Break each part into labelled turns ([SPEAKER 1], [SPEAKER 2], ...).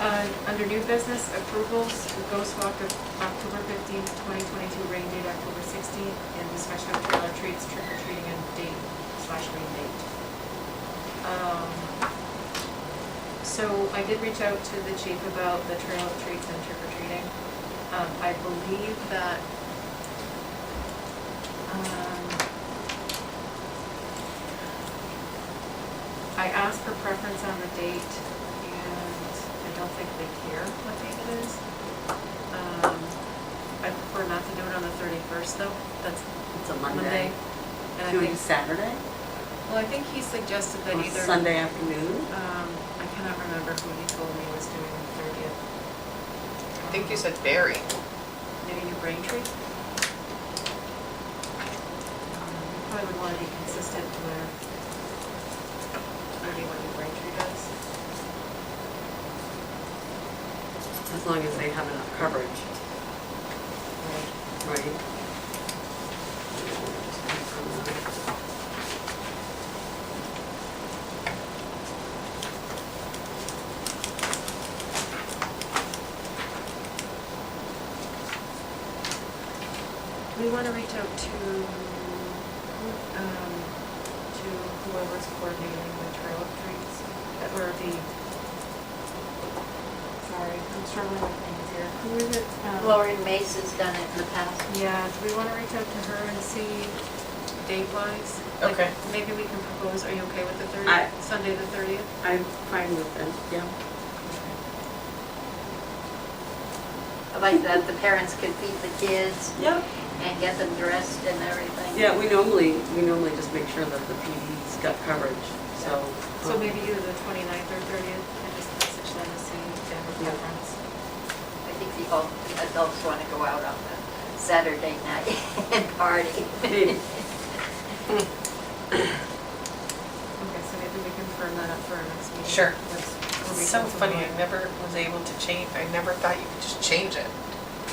[SPEAKER 1] Uh, Under new business approvals, the Ghost Walk of October fifteenth, twenty twenty-two, rain date October sixteenth, and discussion of trailer treats, trick or treating and date slash rain date. Um, So I did reach out to the chief about the trail treats and trick or treating. Um, I believe that, um, I asked for preference on the date, and I don't think they care what date it is. Um, I prefer not to do it on the thirty-first, though, that's
[SPEAKER 2] It's a
[SPEAKER 1] Monday.
[SPEAKER 2] Monday.
[SPEAKER 1] And I
[SPEAKER 2] Do it
[SPEAKER 1] think,
[SPEAKER 2] Saturday?
[SPEAKER 1] well, I think he suggested that
[SPEAKER 2] Or
[SPEAKER 1] either.
[SPEAKER 2] Sunday afternoon?
[SPEAKER 1] Um, I cannot remember who he told me was doing the thirtieth.
[SPEAKER 3] I think you said Barry.
[SPEAKER 1] Maybe New Braintree? Um, Probably would want to be consistent with maybe what New Braintree does.
[SPEAKER 2] As long as they have enough coverage, right?
[SPEAKER 1] We want to reach out to, um, to whoever's coordinating the trail of treats, that were the, sorry, I'm struggling with names here. Who is it? Um,
[SPEAKER 4] Lauren Mace has done it in the past.
[SPEAKER 1] Yeah, do we want to reach out to her and see date wise? Like,
[SPEAKER 3] Okay.
[SPEAKER 1] Maybe we can propose, are you okay with the
[SPEAKER 2] I-
[SPEAKER 1] thirtieth, Sunday the thirtieth?
[SPEAKER 2] I'm fine with that, yeah.
[SPEAKER 4] I like that the parents can feed the kids
[SPEAKER 2] Yep.
[SPEAKER 4] and get them dressed and everything.
[SPEAKER 2] Yeah, we normally, we normally just make sure that the PD's got coverage, so.
[SPEAKER 1] So maybe either the 29th or thirtieth, and just message them to see if they have a
[SPEAKER 2] Yeah.
[SPEAKER 1] preference.
[SPEAKER 4] I think the adult- the adults want to go out on the Saturday night and party.
[SPEAKER 2] Maybe.
[SPEAKER 1] Okay, so maybe we can firm that up for our next meeting.
[SPEAKER 3] Sure.
[SPEAKER 1] Let's- we'll
[SPEAKER 3] It's
[SPEAKER 1] reach
[SPEAKER 3] so
[SPEAKER 1] out to
[SPEAKER 3] funny,
[SPEAKER 1] Lauren.
[SPEAKER 3] I never was able to change, I never thought you could just change it,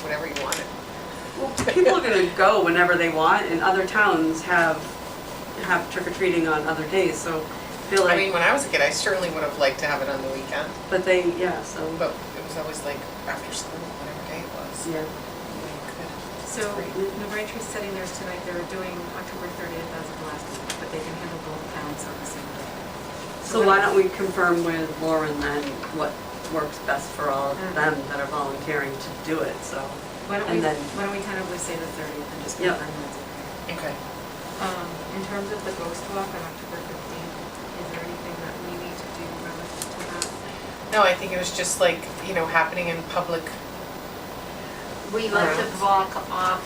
[SPEAKER 3] whatever you wanted.
[SPEAKER 2] Well, people are gonna go whenever they want, and other towns have, have trick or treating on other days, so I feel
[SPEAKER 3] I mean,
[SPEAKER 2] like,
[SPEAKER 3] when I was a kid, I certainly would have liked to have it on the weekend,
[SPEAKER 2] but they, yeah, so,
[SPEAKER 3] but it was always like after school, whatever day it was.
[SPEAKER 2] yeah.
[SPEAKER 1] So New Braintree's setting theirs tonight, they were doing October thirtieth as of last week, but they can handle both towns on the same day.
[SPEAKER 2] So why don't we confirm with Lauren then what works best for all of them that are volunteering to do it, so.
[SPEAKER 1] Why don't we,
[SPEAKER 2] And then,
[SPEAKER 1] why don't we tentatively say the thirtieth and just
[SPEAKER 2] Yeah.
[SPEAKER 1] confirm that's okay?
[SPEAKER 3] Okay.
[SPEAKER 1] Um, in terms of the ghost walk on October fifteenth, is there anything that we need to do relative to that?
[SPEAKER 3] No, I think it was just like, you know, happening in public.
[SPEAKER 4] We like to walk off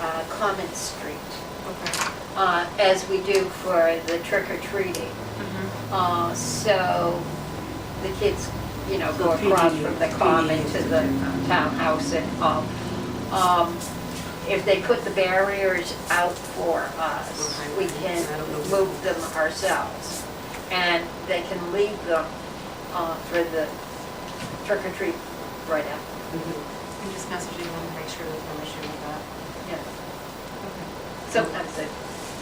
[SPEAKER 4] uh, Common Street,
[SPEAKER 1] Okay.
[SPEAKER 4] uh, as we do for the trick or treating.
[SPEAKER 1] Mm-hmm.
[SPEAKER 4] Uh, So the kids, you know, go
[SPEAKER 2] So
[SPEAKER 4] across
[SPEAKER 2] PD,
[SPEAKER 4] from the common to the townhouse and all. Um, If they put the barriers out for us, we can move them ourselves. And they can leave them uh, for the trick or treat right after.
[SPEAKER 1] I'm just messaging them to make sure there's no issue with that.
[SPEAKER 4] Yeah.
[SPEAKER 1] Okay.
[SPEAKER 4] Sometimes they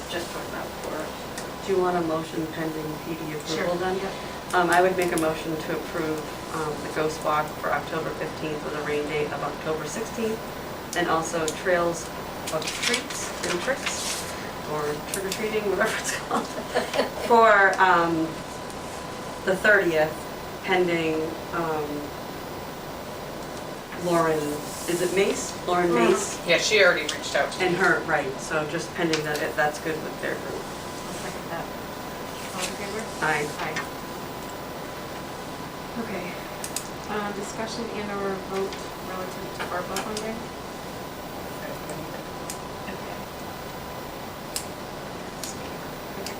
[SPEAKER 4] just put them out for us.
[SPEAKER 2] do you want a motion pending PD approval then?
[SPEAKER 1] Yep.
[SPEAKER 2] Um, I would make a motion to approve, um, the Ghost Walk for October fifteenth with a rain date of October sixteenth, and also Trails of Treats and Tricks, or trick or treating, whatever it's called, for, um, the thirtieth pending, um, Lauren, is it Mace? Lauren Mace
[SPEAKER 3] Yeah, she already reached out to me.
[SPEAKER 2] and her, right, so just pending that, if that's good with their group.
[SPEAKER 1] I'll second that. All in favor?
[SPEAKER 2] Aye.
[SPEAKER 1] Aye. Okay. Um, discussion and or vote relative to ARPA funding? Okay.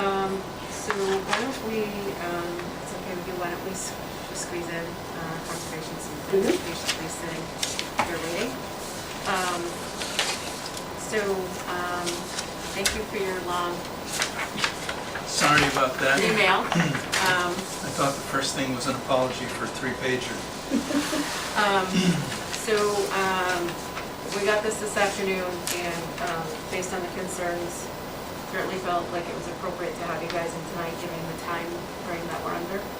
[SPEAKER 1] Um, so why don't we, um, it's okay with you, why don't we s- squeeze in, uh, conservation season,
[SPEAKER 2] Mhm.
[SPEAKER 1] basically saying they're waiting. Um, so, um, thank you for your long
[SPEAKER 5] Sorry about that.
[SPEAKER 1] email. Um,
[SPEAKER 5] I thought the first thing was an apology for a three-pager.
[SPEAKER 1] Um, So, um, we got this this afternoon, and um, based on the concerns, certainly felt like it was appropriate to have you guys in tonight, given the time frame that we're under.